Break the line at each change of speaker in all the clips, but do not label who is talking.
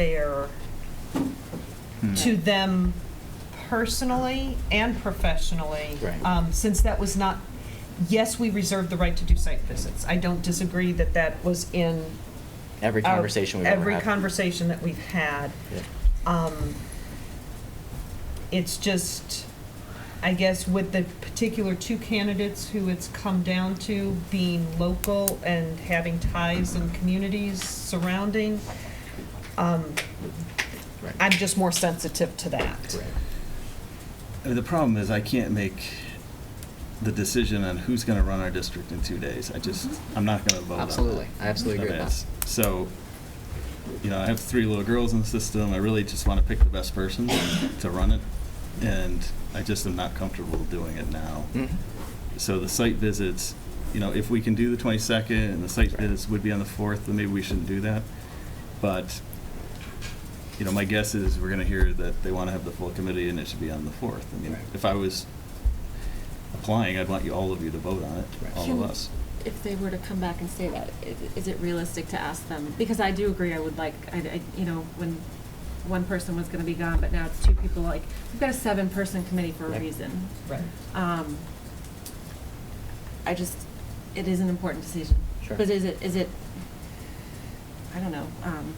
fair
Hmm.
to them personally and professionally.
Right.
Um, Since that was not, yes, we reserved the right to do site visits. I don't disagree that that was in.
Every
our-
conversation we've ever had.
Every conversation that we've had.
Yeah.
Um, It's just, I guess, with the particular two candidates who it's come down to being local and having ties and communities surrounding, um,
Right.
I'm just more sensitive to that.
Right.
I mean, Uh, the problem is I can't make the decision on who's going to run our district in two days. I just, I'm not going to vote on
Mm-hmm.
that.
Absolutely. I absolutely agree with that.
That's- So, you know, I have three little girls in the system. I really just want to pick the best person to run it. And I just am not comfortable doing it now.
Mhm.
So the site visits, you know, if we can do the 22nd and the site
Right.
visits would be on the 4th, then maybe we shouldn't do that. But, you know, my guess is we're going to hear that they want to have the full committee and it should be on the 4th. I mean,
Right.
if I was applying, I'd want you, all of you to vote on it,
Right.
all of
Can-
us.
If they were to come back and say that, i- is it realistic to ask them? Because I do agree, I would like, I, I- you know, when one person was gonna be gone, but now it's two people, like, we've got a seven-person committee for a
Right.
reason.
Right.
Um, I just, it is an important decision.
Sure.
But is it, is it, I don't know, um.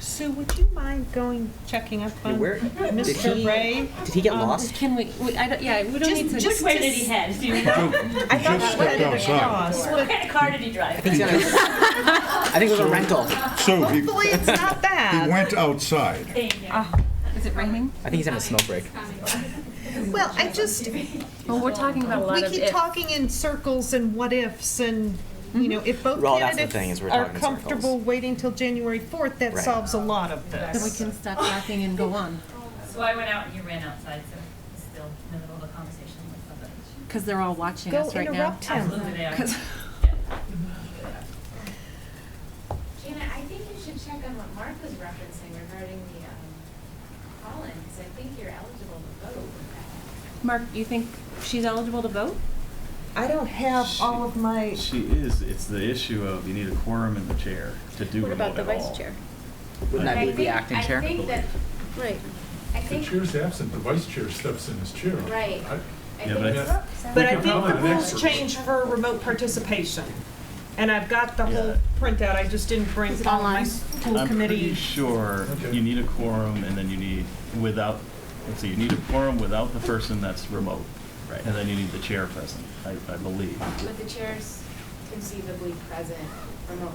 Sue, would you mind going, checking up
Yeah,
on
where- did
Mr.
he-
Ray?
did he get
Um,
lost?
Can we, we, I don't, yeah, we don't
Just-
need to.
just Which way did he head? Do you know? I
He
thought
just
he was
stepped
headed
outside.
across,
What kind of car did he drive?
I think it's gonna- I think it was a rental.
So he,
Hopefully, it's not
he
bad.
went outside.
Thank you.
Uh,
Is it raining?
I think he's having a smoke break.
Well, I just,
Well, we're talking about a lot
we
of
keep
if.
talking in circles and what ifs and,
Mm-hmm.
you know, if both
Well, that's the thing,
candidates
is we're
are
talking in circles.
comfortable waiting till January 4th, that
Right.
solves a lot of this.
Then we can stop laughing and go on,
So I went out and he ran outside, so he's still in the middle of a conversation with somebody.
because they're all watching
Go
us right now.
interrupt him.
Absolutely, they are.
'Cause-
Yeah.
Jana, I think you should check on what Mark was referencing regarding the um, call-in, because I think you're eligible to vote.
Mark, you think she's eligible to vote?
I don't have all of my,
She is, it's the issue of you need a quorum and the chair to do remote at all.
Wouldn't that
I
be the
think-
acting chair?
I think that,
Right.
I
The
think,
chair's absent, the vice chair steps in his chair.
Right.
I-
I
Yeah,
think
but I-
it's.
but I
We can
think the
probably
rules
next-
change for remote participation. And I've got the whole
Yeah.
printout, I just didn't bring all my
online?
school
I'm pretty
committee.
sure
Okay.
you need a quorum and then you need without, let's see, you need a quorum without the person that's remote.
Right.
And then you need the chair present, I, I believe.
But the chair's conceivably present remotely.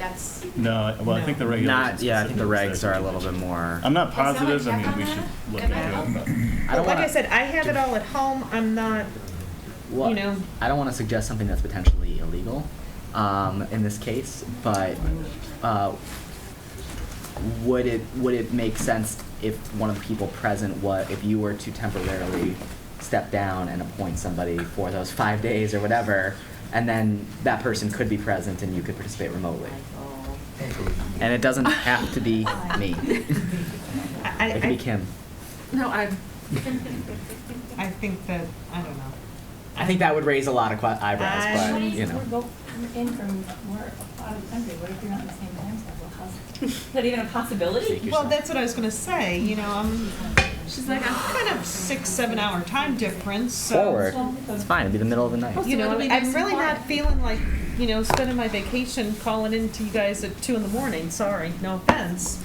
That's.
No, well, I think the
No.
Not,
regulations.
yeah, I think the
specifically
regs
say-
are a little bit more.
I'm not
Can someone
positive, I
check
mean,
on
we should
that?
look
Am I
into it.
helpful?
I don't
But like I
wanna-
said, I have it all at home, I'm not,
Well,
you know-
I don't want to suggest something that's potentially illegal um, in this case, but uh, would it would it make sense if one of the people present what if you were to temporarily step down and appoint somebody for those five days or whatever, and then that person could be present and you could participate remotely, and it doesn't have to be me.
I,
It could be
I-
Kim.
No, I,
I, I think that, I don't know.
I think that would raise a lot of que- eyebrows,
I-
but you know.
We're both in from, we're out of the country, what if you're not in the same time zone, well, how's?
Is that even a possibility?
Yourself.
Well, that's what I was gonna say, you know, I'm
she's like, I'm
kind of six, seven hour time difference, so.
forward. It's fine. It'd be the middle of the night.
You know,
Supposed to be
I'm
nice
really
and
not
quiet.
feeling like, you know, spending my vacation calling in to you guys at two in the morning, sorry, no offense.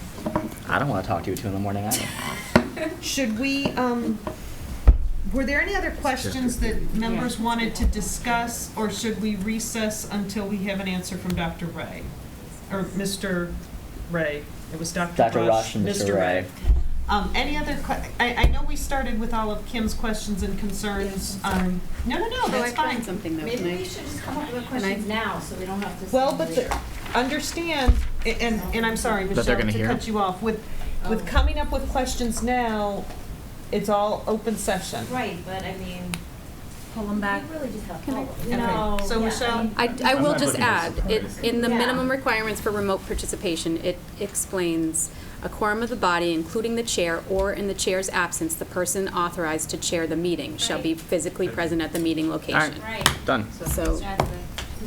I don't want to talk to you at two in the morning either.
Should we, um, were there any other questions that members wanted to discuss, or should we recess until we have an answer from Dr. Ray? Or Mr. Ray, it was Dr. Rush.
Dr. Rush and Mr. Ray.
Um, any other que- I, I know we started with all of Kim's questions and concerns. Um, no, no,
Oh,
no, that's fine.
something
Maybe we should just come up with a
question
question now, so we don't have to.
Well, but the, understand, a- and, and I'm sorry,
That they're
Michelle,
gonna
to
hear?
cut you off, with, with
Oh.
coming up with questions now, it's all open session.
Right, but I mean,
pull them back.
really just have
Can I-
Okay.
No. yeah, I
So
Um,
Michelle,
mean-
I, I
I'm
will
not
just
looking for
add, it,
surprise.
in the
Yeah.
minimum requirements for remote participation, it explains a quorum of the body, including the chair, or in the chair's absence, the person authorized to chair the meeting shall be
Right.
physically present at the meeting
All right.
location.
Right.
Done.
So,
That's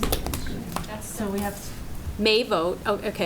the-
So we have may vote, oh, okay,